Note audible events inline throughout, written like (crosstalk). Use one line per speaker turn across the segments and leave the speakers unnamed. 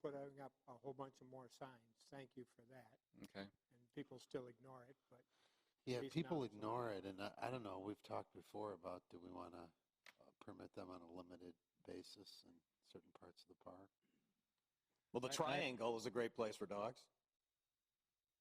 hung up a whole bunch of more signs. Thank you for that.
Okay.
And people still ignore it, but
Yeah,
At least now
people
it's on
ignore it, and I, I don't know, we've talked before about do we want to permit them on a limited basis in certain parts of the park?
Well, the
I- I-
triangle is a great place for dogs.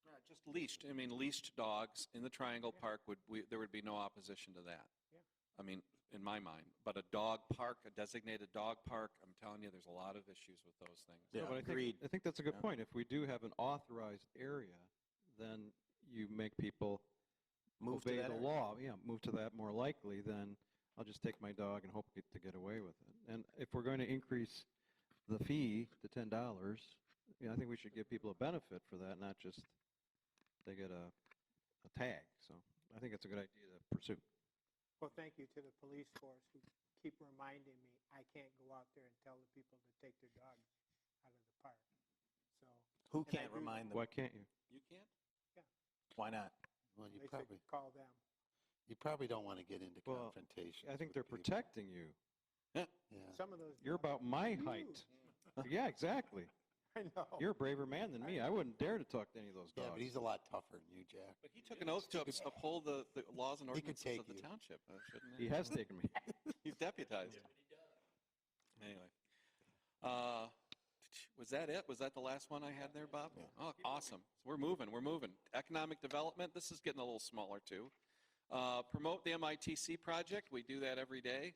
Yeah, Uh, just leashed. I mean, leashed dogs in the Triangle Park would, we, there would be no opposition to that.
Yeah.
I mean, in my mind, but a dog park, a designated dog park, I'm telling you, there's a lot of issues with those things.
Yeah,
but I
agreed.
Think, I think that's a good
Yeah.
point. If we do have an authorized area, then you make people
Move to
obey
that
the
area.
law. Yeah, move to that more likely than I'll just take my dog and hope get, to get away with it. And if we're going to increase the fee to ten dollars, you know, I think we should give people a benefit for that, not just they get a a tag. So I think it's a good idea to pursue.
Well, thank you to the police force who keep reminding me, I can't go out there and tell the people to take their dog out of the park. So
Who
And I
can't
agree with
remind them?
Why can't you?
You can't?
Why not?
Well, you
they should
probably,
call them.
you probably don't want to get into
Well,
confrontation.
I think they're protecting you.
Yeah,
Some of those.
You're
dogs-
about my height.
(laughs)
Yeah, exactly.
(laughs) I
Oh.
know.
You're a braver man than me. I wouldn't dare to talk to any of those
yeah,
dogs.
but he's a lot tougher than you, Jack.
But he took an oath to uphold the, the laws and
He could
ordinances of
take
the
you.
township, uh, shouldn't
he has taken me.
He's deputized. Anyway. Uh, was that it? Was that the last one I had there, Bob?
Yeah.
Oh, awesome. We're moving. We're moving. Economic development. This is getting a little smaller too. Uh, promote the MITC project. We do that every day.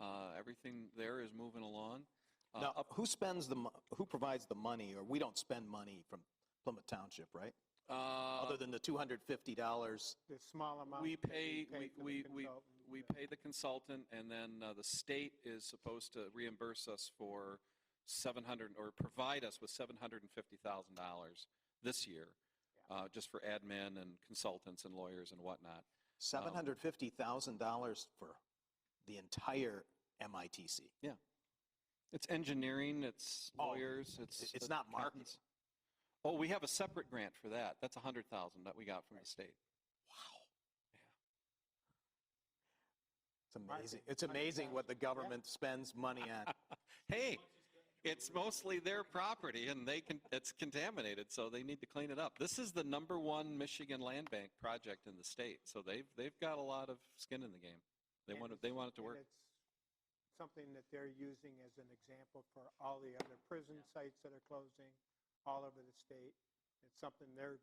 Uh, everything there is moving along. Uh,
Now,
up-
who spends the, mo- who provides the money, or we don't spend money from Plymouth Township, right?
uh,
Other than the $250,
The small amount.
we
that
pay,
pay
we,
for the
we, we,
consultant,
we
uh,
pay the consultant, and then uh, the state is supposed to reimburse us for 700, or provide us with $750,000 this year, uh, just for admin and consultants and lawyers and whatnot. um,
$750,000 for the entire MITC.
It's engineering, it's
Oh,
lawyers, it's.
it's not marketing.
accountants. Oh, we have a separate grant for that. That's 100,000 that we got from the state.
It's amazing. It's amazing what the government spends money on.
(laughs) Hey, it's mostly their property and they can, it's contaminated, so they need to clean it up. This is the number one Michigan land bank project in the state, so they've, they've got a lot of skin in the game. They
and
want it,
it's-
they want it to
and
work.
it's Something that they're using as an example for all the other prison sites that are closing all over the state. It's something they're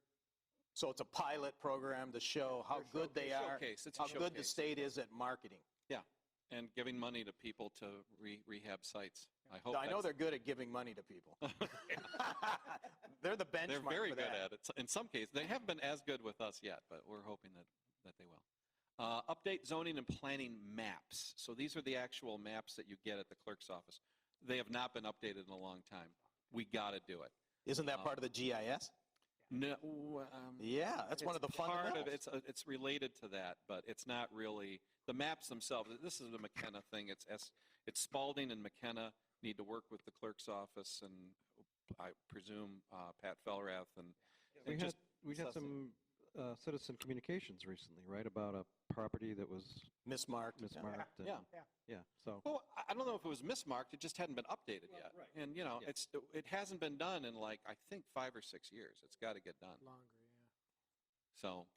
So it's a pilot program to show how
They're
good they are,
Showcase, it's a
how good the
showcase.
state is at marketing.
And giving money to people to re- rehab sites. I hope
I know
that's-
they're good at giving money to
(laughs)
people. They're the benchmark
They're very
for
good
that.
at it. In some cases, they haven't been as good with us yet, but we're hoping that, that they will. Uh, update zoning and planning maps. So these are the actual maps that you get at the clerk's office. They have not been updated in a long time. We got to do it.
Isn't that
Um,
part of the GIS?
No, um,
Yeah, that's one of the
part
fundamentals.
of it's uh, it's related to that, but it's not really the maps themselves. This is the McKenna thing. It's S, it's Spalding and McKenna need to work with the clerk's office and I presume uh, Pat Felrath and,
We
and
had,
just
(laughs) we had
suss it.
some uh, citizen communications recently, right, about a property that was
Mismarked. yeah.
mismarked. and-
Yeah.
Yeah.
Yeah, so,
Well, I- I don't know if it was mismarked, it just hadn't been updated yet. And, you know,
Yeah.
it's, it hasn't been done in like, I think, five or six years. It's got to get done.
longer, yeah.
So,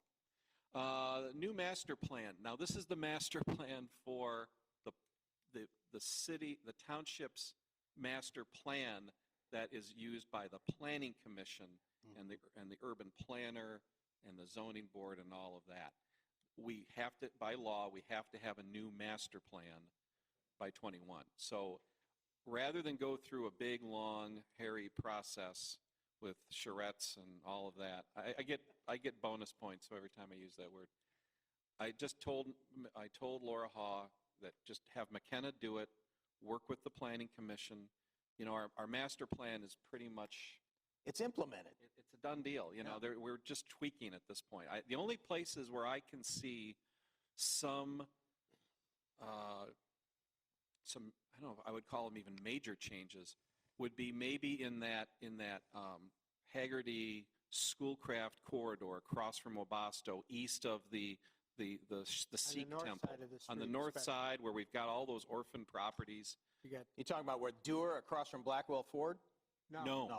uh, new master plan. Now, this is the master (laughs) plan for the, the, the city, the township's master plan that is used by the planning commission and the, and the urban planner and the zoning board and all of that. We have to, by law, we have to have a new master plan by 21. So rather than go through a big, long, hairy process with charrettes and all of that, I, I get, I get bonus points every time I use that word. I just told, I told Laura Haw that just have McKenna do it, work with the planning commission. You know, our, our master plan is pretty much
It's implemented.
it- it's a done deal. You know, there, we're just tweaking at this point. I, the only places where I can see some, uh, some, I don't know, if I would call them even major changes, would be maybe in that, in that um, Haggerty Schoolcraft corridor across from Wabasto, east of the, the, the, sh- the Sikh
On the north
temple.
side of the street.
On the north
especially.
side, where we've got all those orphan properties.
You got,
You talking about where Dewar across from Blackwell Ford?
no.
No.